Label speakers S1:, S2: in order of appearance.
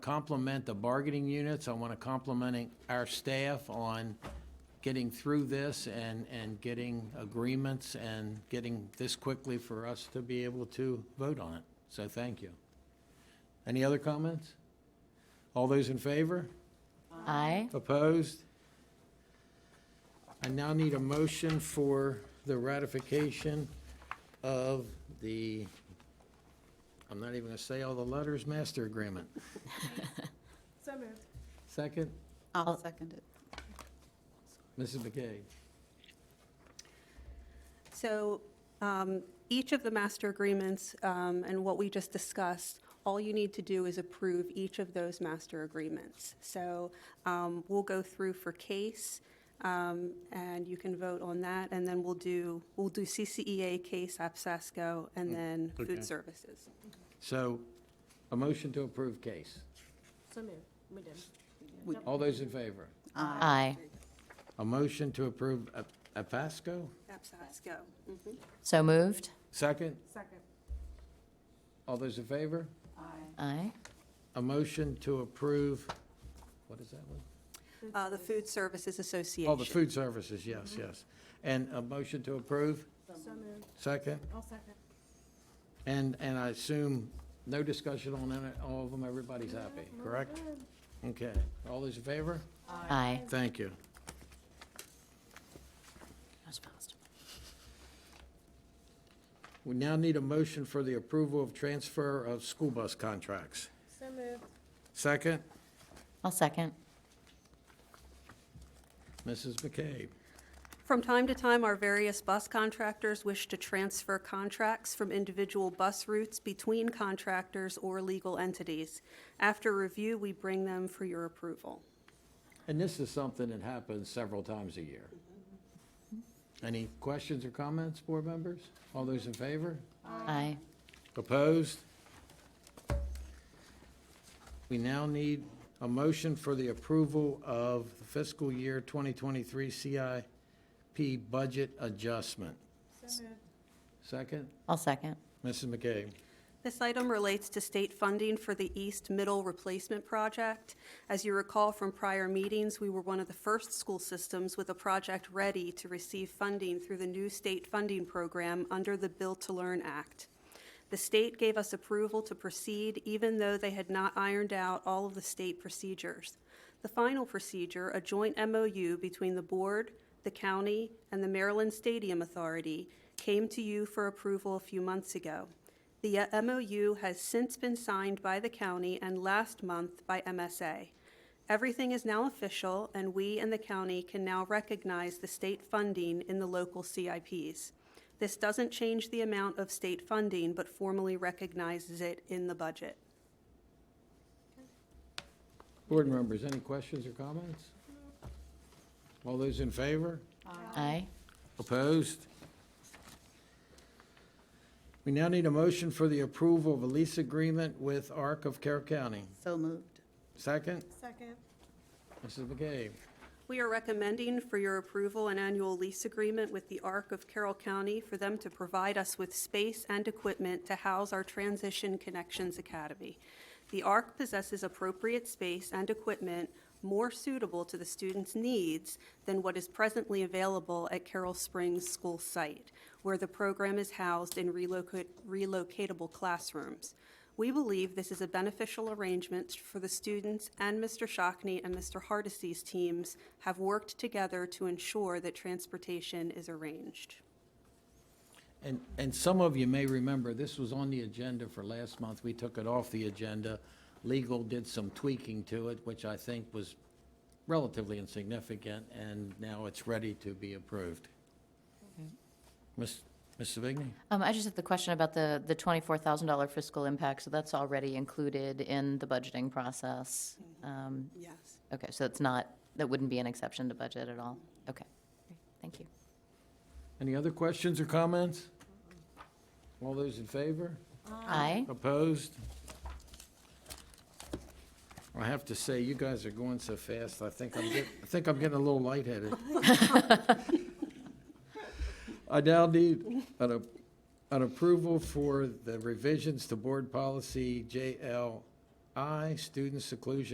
S1: compliment the bargaining units. I want to compliment our staff on getting through this and, and getting agreements and getting this quickly for us to be able to vote on it. So thank you. Any other comments? All those in favor?
S2: Aye.
S1: Opposed? I now need a motion for the ratification of the, I'm not even going to say all the letters, master agreement.
S3: So moved.
S1: Second,
S2: I'll-
S4: I'll second it.
S1: Mrs. McKay.
S3: So um, each of the master agreements um, and what we just discussed, all you need to do is approve each of those master agreements. So um, we'll go through for case, um, and you can vote on that, and then we'll do, we'll do CCEA, case, APSASCO, and then
S1: Mm, okay.
S3: food services.
S1: So, a motion to approve case.
S5: So moved, we did.
S1: All those in favor?
S2: Aye.
S1: A motion to approve A- APASCO?
S3: APSASCO.
S2: So moved?
S1: Second,
S5: Second.
S1: all those in favor?
S2: Aye.
S1: A motion to approve, what is that one?
S3: Uh, The Food Services Association.
S1: Oh, the food services, yes, yes. And a motion to approve?
S5: Mm-hmm. So moved,
S1: Second?
S5: I'll second.
S1: And, and I assume no discussion on any- all of them, everybody's happy, correct? Okay, all those in favor?
S2: Aye.
S1: Thank you.
S2: That was fast.
S1: We now need a motion for the approval of transfer of school bus contracts.
S5: So moved,
S1: Second,
S2: I'll second.
S1: Mrs. McCabe.
S3: From time to time, our various bus contractors wish to transfer contracts from individual bus routes between contractors or legal entities. After review, we bring them for your approval.
S1: And this is something that happens several times a year. Any questions or comments, board members? All those in favor?
S2: Aye.
S1: Opposed? We now need a motion for the approval of the fiscal year 2023 CIP budget adjustment.
S5: so moved.
S1: Second,
S2: I'll second.
S1: Mrs. McKay.
S3: This item relates to state funding for the East Middle Replacement Project. As you recall from prior meetings, we were one of the first school systems with a project ready to receive funding through the new state funding program under the Build to Learn Act. The state gave us approval to proceed even though they had not ironed out all of the state procedures. The final procedure, a joint MOU between the board, the county, and the Maryland Stadium Authority, came to you for approval a few months ago. The uh, MOU has since been signed by the county and last month by MSA. Everything is now official, and we and the county can now recognize the state funding in the local CIPs. This doesn't change the amount of state funding, but formally recognizes it in the budget.
S1: Board members, any questions or comments? All those in favor?
S2: Aye.
S1: Opposed? We now need a motion for the approval of a lease agreement with ARC of Carroll County.
S4: So moved.
S1: Second,
S5: Second,
S1: Mrs. McCabe.
S3: We are recommending for your approval an annual lease agreement with the ARC of Carroll County for them to provide us with space and equipment to house our Transition Connections Academy. The ARC possesses appropriate space and equipment more suitable to the students' needs than what is presently available at Carroll Springs School site, where the program is housed in relocate- relocatable classrooms. We believe this is a beneficial arrangement for the students and Mr. Shockney and Mr. Hardesty's teams have worked together to ensure that transportation is arranged.
S1: And, and some of you may remember, this was on the agenda for last month. We took it off the agenda. Legal did some tweaking to it, which I think was relatively insignificant, and now it's ready to be approved. Ms. Ms. Savigny?
S2: Um, I just have the question about the, the $24,000 fiscal impact, so that's already included in the budgeting process. Um,
S3: Yes.
S2: Okay, so it's not, that wouldn't be an exception to budget at all? Okay, Great. thank you.
S1: Any other questions or comments? All those in favor?
S2: Aye.
S1: Opposed? I have to say, you guys are going so fast, I think I'm getting, I think I'm getting a little lightheaded. I now need an, a- an approval for the revisions to board policy JL Aye. Student seclusion